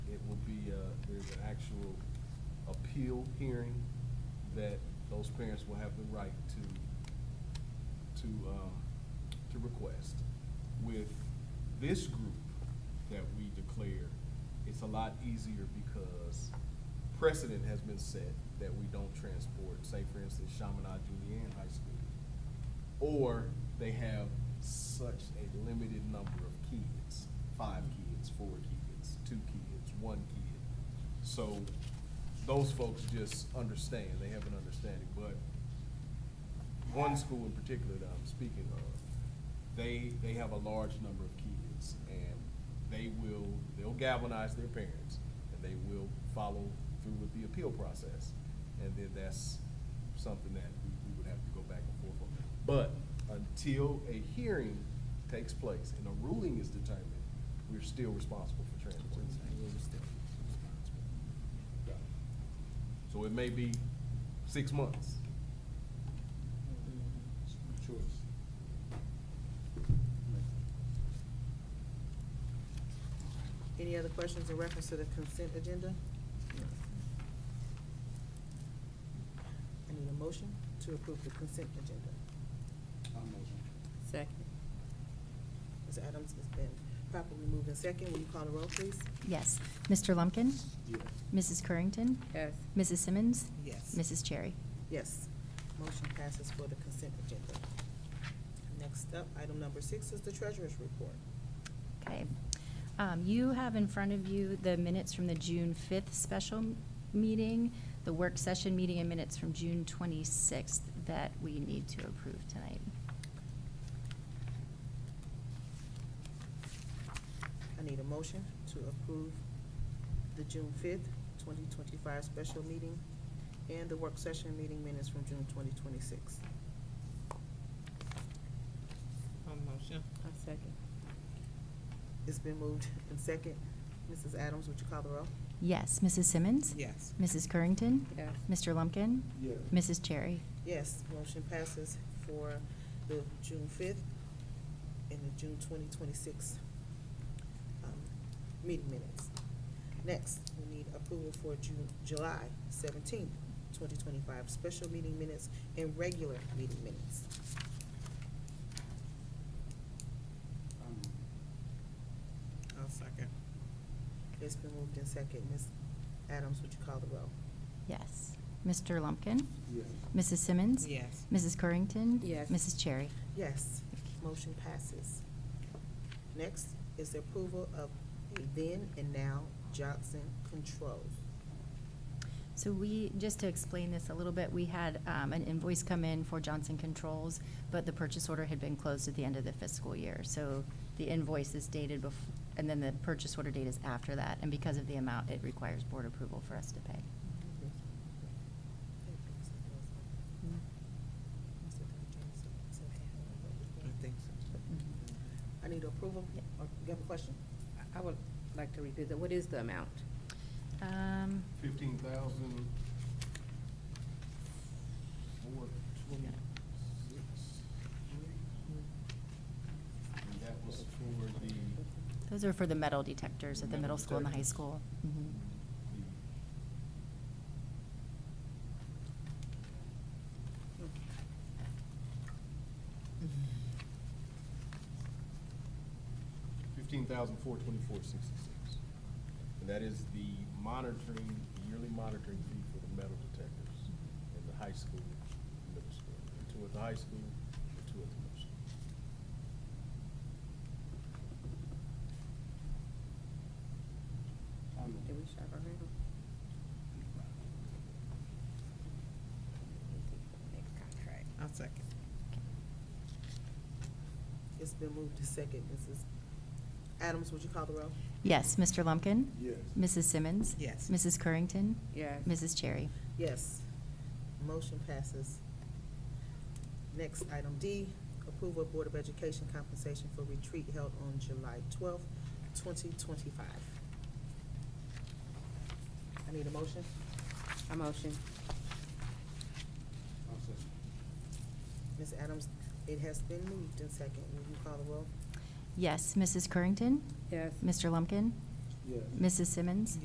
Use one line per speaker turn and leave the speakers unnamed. uh, actual appeal hearing that those parents will have the right to, to, um, to request. With this group that we declare, it's a lot easier because precedent has been set that we don't transport, say for instance, Chaminade Julian High School or they have such a limited number of kids, five kids, four kids, two kids, one kid. So those folks just understand, they have an understanding, but one school in particular that I'm speaking of, they, they have a large number of kids and they will, they'll galvanize their parents and they will follow through with the appeal process. And then that's something that we, we would have to go back and forth on. But until a hearing takes place and a ruling is determined, we're still responsible for transport. So it may be six months.
Any other questions in reference to the consent agenda? I need a motion to approve the consent agenda.
Second.
Ms. Adams has been properly moved in second. Will you call the roll, please?
Yes. Mr. Lumpkin? Mrs. Currington?
Yes.
Mrs. Simmons?
Yes.
Mrs. Cherry?
Yes. Motion passes for the consent agenda. Next up, item number six is the treasurer's report.
Okay. Um, You have in front of you the minutes from the June 5th special m- meeting, the work session meeting, and minutes from June 26th that we need to approve tonight.
I need a motion to approve the June fifth, twenty twenty-five special meeting and the work session meeting minutes from June twenty twenty-six.
motion. A second.
It's been moved in second. Mrs. Adams, would you call the roll?
Yes. Mrs. Simmons?
Yes.
Mrs. Currington?
Yes.
Mr. Lumpkin?
Yes.
Mrs. Cherry?
Yes, motion passes for the June fifth and the June twenty twenty-six um, meeting minutes. Next, we need approval for June, July seventeenth, twenty twenty-five special meeting minutes and regular meeting minutes. I'll second. It's been moved in second. Ms. Adams, would you call the roll?
Yes. Mr. Lumpkin?
Yes.
Mrs. Simmons?
Yes.
Mrs. Currington?
Yes.
Mrs. Cherry?
Yes, motion passes. Next is the approval of a then and now Johnson Controls.
So we, just to explain this a little bit, we had um, an invoice come in for Johnson Controls, but the purchase order had been closed at the end of the fiscal year. So the invoice is dated bef, and then the purchase order date is after that. And because of the amount, it requires board approval for us to pay.
I think so. I need approval,
Yeah.
or you have a question?
I would like to revisit, what is the amount?
Um,
Fifteen thousand four twenty-six. And that was for the,
Those are for the metal detectors at the middle school and the high school.
Mm-hmm.
Mhm.
the fifteen thousand four twenty-four sixty-six. And that is the monitoring, yearly monitoring fee for the metal detectors in the high school, middle school, the two at the high school, the two at the middle school.
Did we shop around? Next contract.
I'll second. It's been moved to second, Mrs. Adams, would you call the roll?
Yes, Mr. Lumpkin?
Yes.
Mrs. Simmons?
Yes.
Mrs. Currington?
Yes.
Mrs. Cherry?
Yes. Motion passes. Next, item D, approval of Board of Education compensation for retreat held on July twelfth, twenty twenty-five. I need a motion.
A motion.
Ms. Adams, it has been moved and second. Will you call the roll?
Yes, Mrs. Currington?
Yes.
Mr. Lumpkin?
Yes.
Mrs. Simmons?